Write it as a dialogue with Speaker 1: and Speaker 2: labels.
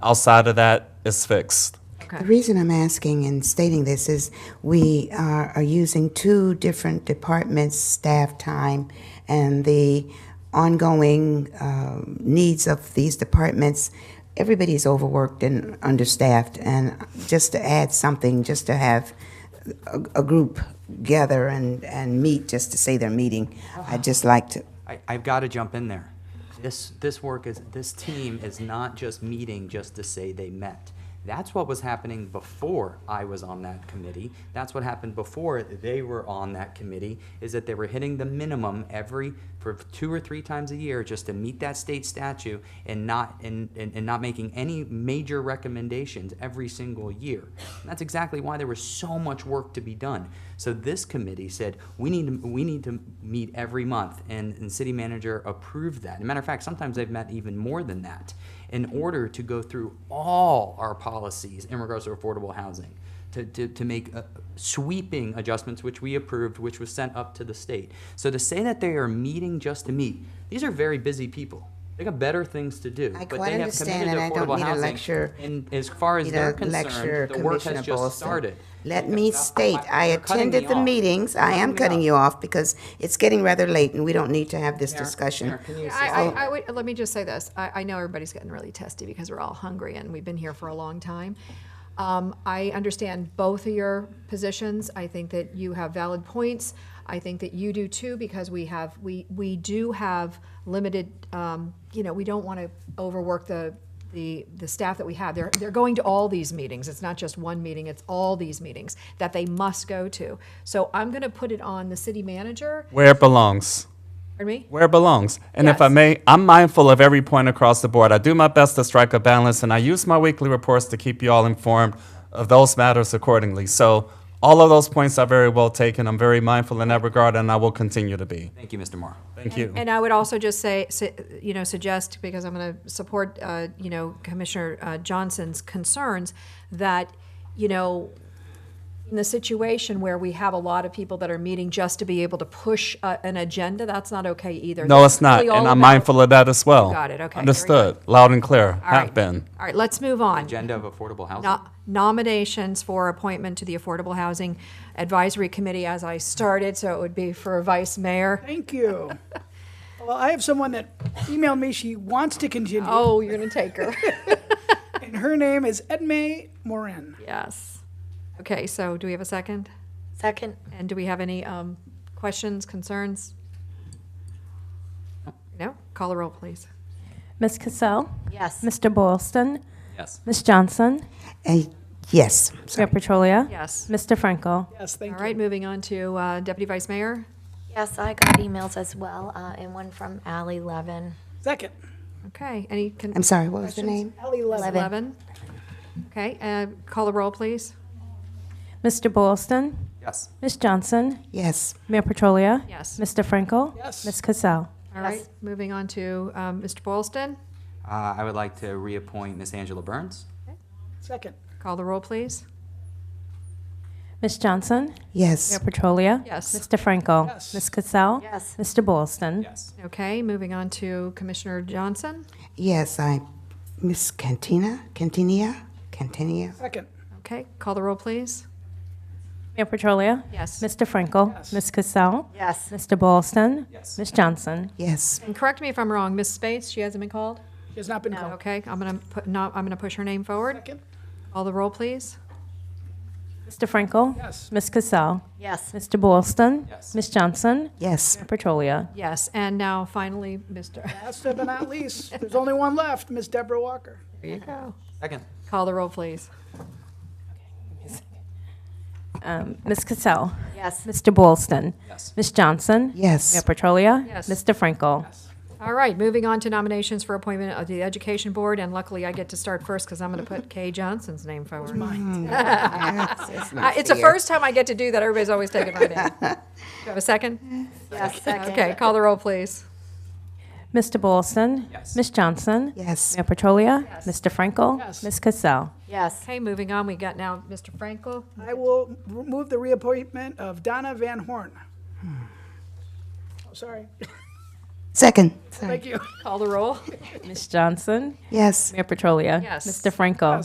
Speaker 1: Outside of that, it's fixed.
Speaker 2: Okay.
Speaker 3: The reason I'm asking and stating this is we are, are using two different departments' staff time, and the ongoing um, needs of these departments, everybody's overworked and understaffed, and just to add something, just to have a, a group gather and, and meet, just to say they're meeting, I'd just like to,
Speaker 4: I, I've got to jump in there. This, this work is, this team is not just meeting just to say they met. That's what was happening before I was on that committee. That's what happened before they were on that committee, is that they were hitting the minimum every, for two or three times a year, just to meet that state statute and not, and, and, and not making any major recommendations every single year. And that's exactly why there was so much work to be done. So this committee said, we need, to we need to meet every month, and, and city manager approved that. As a matter of fact, sometimes they've met even more than that in order to go through all our policies in regards to affordable housing, to, to, to make uh, sweeping adjustments, which we approved, which was sent up to the state. So to say that they are meeting just to meet, these are very busy people. They got better things to do.
Speaker 3: I
Speaker 4: but
Speaker 3: quite
Speaker 4: they have
Speaker 3: understand,
Speaker 4: committed
Speaker 3: and
Speaker 4: to
Speaker 3: I don't
Speaker 4: affordable
Speaker 3: need a
Speaker 4: housing.
Speaker 3: lecture-
Speaker 4: And as far as
Speaker 3: need
Speaker 4: they're
Speaker 3: a lecture,
Speaker 4: concerned, the work
Speaker 3: Commissioner
Speaker 4: has just
Speaker 3: Bolson.
Speaker 4: started.
Speaker 3: Let
Speaker 4: They're
Speaker 3: me
Speaker 4: not-
Speaker 3: state, I
Speaker 4: they're cutting me
Speaker 3: attended the
Speaker 4: off.
Speaker 3: meetings. I am cutting you off because it's getting rather late and we don't need to have this
Speaker 4: Mayor,
Speaker 3: discussion. Oh.
Speaker 4: Mayor, can you
Speaker 2: I,
Speaker 4: assist
Speaker 2: I,
Speaker 4: me?
Speaker 2: I would, let me just say this. I, I know everybody's getting really testy because we're all hungry and we've been here for a long time. Um, I understand both of your positions. I think that you have valid points. I think that you do too because we have, we, we do have limited, um, you know, we don't want to overwork the, the, the staff that we have. They're, they're going to all these meetings. It's not just one meeting, it's all these meetings that they must go to. So I'm going to put it on the city manager.
Speaker 1: Where it belongs.
Speaker 2: Pardon me?
Speaker 1: where it belongs. And if I
Speaker 2: Yes.
Speaker 1: may, I'm mindful of every point across the board. I do my best to strike a balance, and I use my weekly reports to keep you all informed of those matters accordingly. So all of those points are very well taken. I'm very mindful in that regard, and I will continue to be.
Speaker 4: Thank you, Mr. Moore.
Speaker 1: Thank you.
Speaker 2: And I would also just say, s- you know, suggest, because I'm going to support, uh, you know, Commissioner uh, Johnson's concerns, that, you know, in the situation where we have a lot of people that are meeting just to be able to push uh, an agenda, that's not okay either.
Speaker 1: No, it's not,
Speaker 2: really all
Speaker 1: and I'm
Speaker 2: about-
Speaker 1: mindful of that as well.
Speaker 2: got it. Okay, very
Speaker 1: Understood, loud and clear,
Speaker 2: All right.
Speaker 1: have been.
Speaker 2: All right, let's move on.
Speaker 4: Agenda of affordable housing.
Speaker 2: No- Nominations for appointment to the Affordable Housing Advisory Committee as I started, so it would be for vice mayor.
Speaker 5: Thank you. Well, I have someone that emailed me she wants to continue,
Speaker 2: Oh, you're going to take her.
Speaker 5: and her name is Edme Morin.
Speaker 2: Yes. Okay, so do we have a second?
Speaker 6: Second.
Speaker 2: And do we have any um, questions, concerns? No? Call a roll, please.
Speaker 7: Ms. Cassell?
Speaker 6: Yes.
Speaker 7: Mr. Boylston?
Speaker 4: Yes.
Speaker 7: Ms. Johnson?
Speaker 3: Uh, Yes,
Speaker 7: Mayor Petrolia?
Speaker 2: Yes.
Speaker 7: Mr. Frankel?
Speaker 5: Yes,
Speaker 2: All
Speaker 5: thank you.
Speaker 2: right, moving on to uh, Deputy Vice Mayor.
Speaker 6: Yes, I got emails as well, uh, and one from Ally Levin.
Speaker 5: Second,
Speaker 2: Okay, any? con-
Speaker 3: I'm sorry, what was the name?
Speaker 5: Ally Levin.
Speaker 6: Levin.
Speaker 2: Eleven. Okay, uh, call a roll, please.
Speaker 7: Mr. Boylston?
Speaker 4: Yes.
Speaker 7: Ms. Johnson?
Speaker 3: Yes,
Speaker 7: Mayor Petrolia?
Speaker 2: Yes.
Speaker 7: Mr. Frankel?
Speaker 5: Yes.
Speaker 7: Ms. Cassell?
Speaker 2: All right, moving on to um, Mr. Boylston.
Speaker 4: Uh, I would like to reappoint Miss Angela Burns.
Speaker 5: Second,
Speaker 2: Call the roll, please.
Speaker 7: Ms. Johnson? Mayor
Speaker 3: yes,
Speaker 7: Petrolia?
Speaker 2: Yes.
Speaker 7: Mr. Frankel?
Speaker 5: Yes.
Speaker 7: Ms. Cassell?
Speaker 6: Yes.
Speaker 7: Mr. Boylston?
Speaker 4: Yes.
Speaker 2: Okay, moving on to Commissioner Johnson.
Speaker 3: yes, I, Miss Cantina, Cantinia, Cantinia,
Speaker 5: second,
Speaker 2: Okay, call the roll, please.
Speaker 7: Mayor Petrolia?
Speaker 2: Yes.
Speaker 7: Mr. Frankel?
Speaker 5: Yes.
Speaker 7: Ms. Cassell?
Speaker 6: Yes.
Speaker 7: Mr. Boylston?
Speaker 4: Yes.
Speaker 7: Ms. Johnson?
Speaker 3: yes,
Speaker 2: And correct me if I'm wrong, Miss Spates, she hasn't been called?
Speaker 5: she has not been called.
Speaker 2: Okay, I'm gonna put, no, I'm gonna push her name forward.
Speaker 5: Second,
Speaker 2: Call the roll, please.
Speaker 7: Mr. Frankel?
Speaker 5: yes,
Speaker 7: Ms. Cassell?
Speaker 6: Yes.
Speaker 7: Mr. Boylston?
Speaker 4: Yes.
Speaker 7: Ms. Johnson?
Speaker 3: yes,
Speaker 7: Mayor Petrolia?
Speaker 2: Yes, and now finally, Mr.
Speaker 5: last but not least, there's only one left, Miss Deborah Walker.
Speaker 2: There you go.
Speaker 4: Second.
Speaker 2: Call the roll, please.
Speaker 7: Um, Ms. Cassell?
Speaker 6: Yes.
Speaker 7: Mr. Boylston?
Speaker 4: Yes.
Speaker 7: Ms. Johnson? Mayor
Speaker 3: yes,
Speaker 7: Petrolia?
Speaker 2: Yes.
Speaker 7: Mr. Frankel?
Speaker 2: All right, moving on to nominations for appointment of the Education Board, and luckily I get to start first because I'm gonna put Kay Johnson's name forward.
Speaker 3: Ah,
Speaker 2: Uh, It's the first time I get to do that. Everybody's always taking my name. Do you have a second?
Speaker 6: Yes. Second.
Speaker 2: Okay, call the roll, please.
Speaker 7: Mr. Boylston?
Speaker 4: Yes.
Speaker 7: Ms. Johnson?
Speaker 3: yes,
Speaker 7: Mayor Petrolia? Mr. Frankel? Ms. Cassell?
Speaker 6: Yes.
Speaker 2: Okay, moving on, we got now Mr. Frankel.
Speaker 5: I will r- move the reappointment of Donna Van Horn. Oh, sorry.
Speaker 3: Second.
Speaker 5: Thank you.
Speaker 2: Call the roll.
Speaker 7: Ms. Johnson?
Speaker 3: Yes.
Speaker 7: Mayor Petrolia?
Speaker 2: Yes.
Speaker 7: Mr. Franco?